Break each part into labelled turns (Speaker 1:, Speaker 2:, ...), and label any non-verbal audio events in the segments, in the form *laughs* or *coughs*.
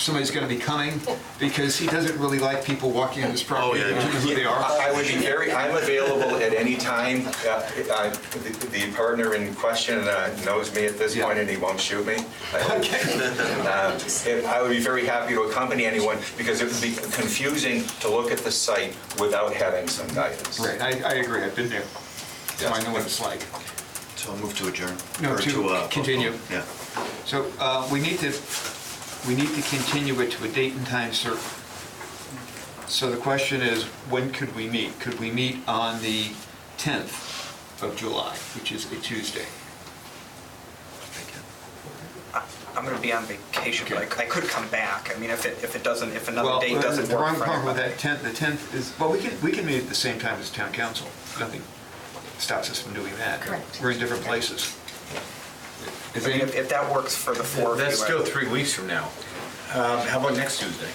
Speaker 1: somebody's gonna be coming, because he doesn't really like people walking on his property,
Speaker 2: Oh, yeah.
Speaker 1: knowing who they are.
Speaker 3: I I would be very, I'm available at any time. Uh, I- The the partner in question uh, knows me at this
Speaker 1: Yeah.
Speaker 3: point, and he won't shoot me. Um, if- I would be very happy to accompany anyone, because it would be confusing to look at the site without having some guidance.
Speaker 1: Right, I, I agree, I've been there, so I know what it's like.
Speaker 2: So I'll move to adjourn.
Speaker 1: No,
Speaker 2: Or
Speaker 1: to
Speaker 2: uh,
Speaker 1: continue.
Speaker 2: postpone. Yeah.
Speaker 1: So, uh, we need to, we need to continue it to a date and time certain. So the question is, when could we meet? Could we meet on the 10th of July, which is a Tuesday?
Speaker 4: I'm going to be on vacation, but
Speaker 1: Okay.
Speaker 4: I- I could come back. I mean, if it, if it doesn't, if another
Speaker 1: Well,
Speaker 4: date doesn't
Speaker 1: the
Speaker 4: work
Speaker 1: wrong
Speaker 4: for
Speaker 1: problem with
Speaker 4: everybody.
Speaker 1: that 10th, the 10th is, well, we can, we can meet at the same time as town council. Nothing stops us from doing that.
Speaker 5: Correct.
Speaker 1: We're in different places. Is
Speaker 4: I mean,
Speaker 1: any-
Speaker 4: if, if that works for the four of you.
Speaker 6: That's
Speaker 4: I-
Speaker 6: still three weeks from now. Um, How about next Tuesday?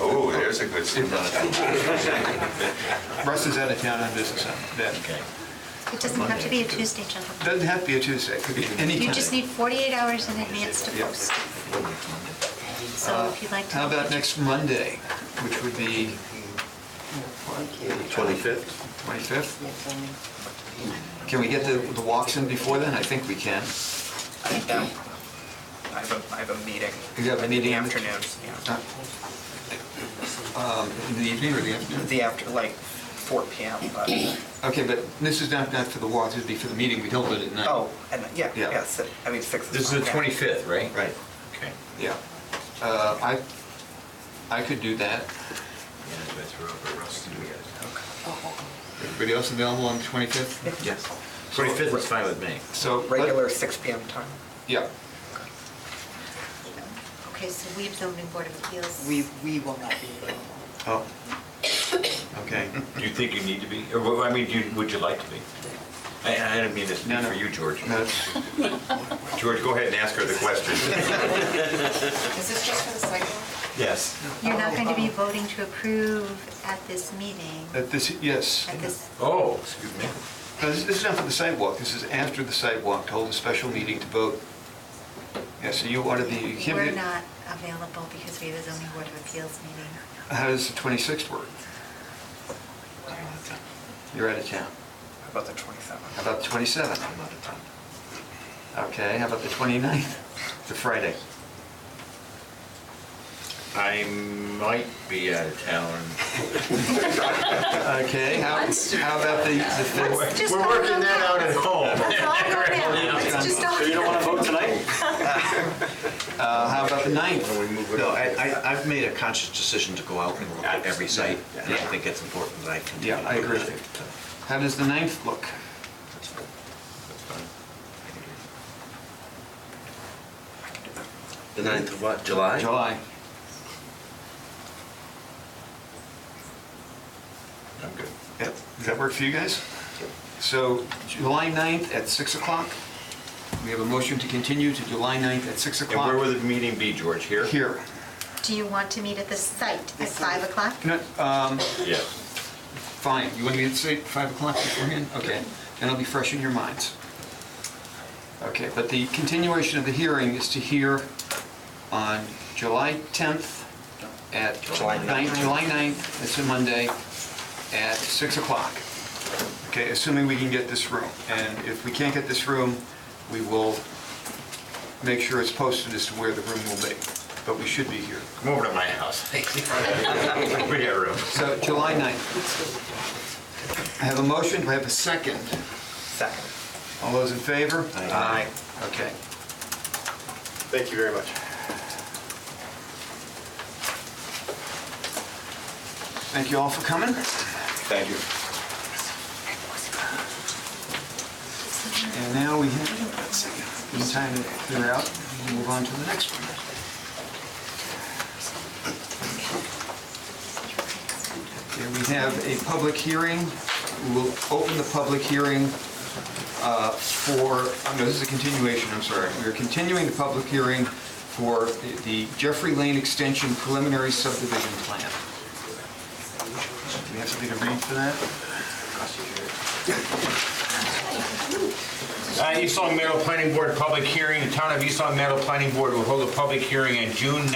Speaker 3: Oh, there's a good suggestion.
Speaker 1: Russ is out of town on business on that.
Speaker 6: Okay.
Speaker 5: It doesn't have to be a Tuesday, gentlemen.
Speaker 1: Doesn't have to be a Tuesday, it could be any time.
Speaker 5: You just need 48 hours in advance to
Speaker 1: Yeah.
Speaker 5: post. So if you'd like to.
Speaker 1: How about next Monday, which would be
Speaker 2: 25th?
Speaker 1: 25th? Can we get the the walks in before then? I think we can.
Speaker 4: I have a, I have a meeting.
Speaker 1: You have a
Speaker 4: In
Speaker 1: meeting
Speaker 4: the
Speaker 1: in the-
Speaker 4: afternoons, yeah.
Speaker 1: Uh, um, In the evening or the afternoon?
Speaker 4: The after, like, 4 PM, but,
Speaker 1: Okay, but this is not, not for the walk, this would be for the meeting we held it at night.
Speaker 4: oh, and, yeah,
Speaker 1: Yeah.
Speaker 4: yeah, si- I mean, 6
Speaker 6: This is the
Speaker 4: fine, yeah.
Speaker 6: 25th, right?
Speaker 2: Right.
Speaker 6: Okay.
Speaker 1: Yeah. Uh, I, I could do that. Everybody else available on the 25th?
Speaker 6: Yes. 25th is fine with me.
Speaker 1: So. let-
Speaker 4: Regular 6 PM time.
Speaker 1: Yeah.
Speaker 5: Okay, so we have zoning board of appeals.
Speaker 7: We, we will not be available.
Speaker 1: *coughs*
Speaker 2: Oh. Okay.
Speaker 6: Do you think you need to be, or what- I mean, do you- would you like to be? I I didn't mean this to be
Speaker 1: No, no.
Speaker 6: for you, George.
Speaker 1: No, it's-
Speaker 6: George, go ahead and ask her the question.
Speaker 8: Is this just for the sidewalk?
Speaker 6: Yes.
Speaker 5: You're
Speaker 1: Oh,
Speaker 5: not going to be
Speaker 1: uh-huh.
Speaker 5: voting to approve at this meeting,
Speaker 1: At this, yes.
Speaker 5: at this,
Speaker 6: Oh, excuse me.
Speaker 1: No, This this is not for the sidewalk, this is after the sidewalk, to hold a special meeting to vote. Yeah, so you ought to be, you can't be...
Speaker 5: we're not available because we have a zoning board of appeals meeting.
Speaker 1: How does the 26th work? You're out of town.
Speaker 4: How about the
Speaker 1: How
Speaker 4: 27th?
Speaker 1: about the 27th?
Speaker 2: I'm out of town.
Speaker 1: Okay, how about the 29th? The Friday.
Speaker 6: I might be out of town.
Speaker 1: Okay, how how about the the 5th?
Speaker 5: Just
Speaker 6: We're
Speaker 5: go
Speaker 6: working
Speaker 5: on
Speaker 6: that out at home.
Speaker 5: Let's all go now.
Speaker 6: *laughs*
Speaker 5: Let's just all.
Speaker 1: Uh, How about the 9th?
Speaker 2: No, I, I- I've made a conscious decision to go out and look at every site, and I think it's important that I continue.
Speaker 1: Yeah, I
Speaker 2: to do
Speaker 1: agree.
Speaker 2: that. So,
Speaker 1: How does the 9th look?
Speaker 2: that's fine. That's fine. I can do it.
Speaker 9: The 9th of what, July?
Speaker 1: July.
Speaker 2: I'm good.
Speaker 1: Yep. Does that work for you guys? So July 9th at 6 o'clock? We have a motion to continue to July 9th at 6
Speaker 6: And where
Speaker 1: o'clock.
Speaker 6: will the meeting be, George? Here?
Speaker 1: Here.
Speaker 5: Do you want to meet at the site at 5 o'clock?
Speaker 1: No, um,
Speaker 6: Yes.
Speaker 1: Fine, you want to get say five o'clock beforehand? Okay, then I'll be fresh in your minds. Okay, but the continuation of the hearing is to hear on July 10th at,
Speaker 2: July
Speaker 1: ninth- July 9th, it's a Monday, at 6 o'clock. Okay, assuming we can get this room. And if we can't get this room, we will make sure it's posted as to where the room will be. But we should be here.
Speaker 6: Come over to my house. *laughs* We got room.
Speaker 1: So July 9th. I have a motion, do I have a second?
Speaker 4: Second.
Speaker 1: All those in favor?
Speaker 4: Aye.
Speaker 1: Okay.
Speaker 6: Thank you very much.
Speaker 1: Thank you all for coming.
Speaker 3: Thank you.
Speaker 1: And now we have, let's see, in time to clear out, and move on to the next one. Okay, we have a public hearing. We'll open the public hearing uh, for, oh, no, this is a continuation, I'm sorry. We're continuing the public hearing for the- the Jeffrey Lane Extension preliminary subdivision plan. Do we have something to read for that?
Speaker 6: Uh, East Long Meadow Planning Board Public Hearing. The Town of East Long Meadow Planning Board will hold a public hearing on June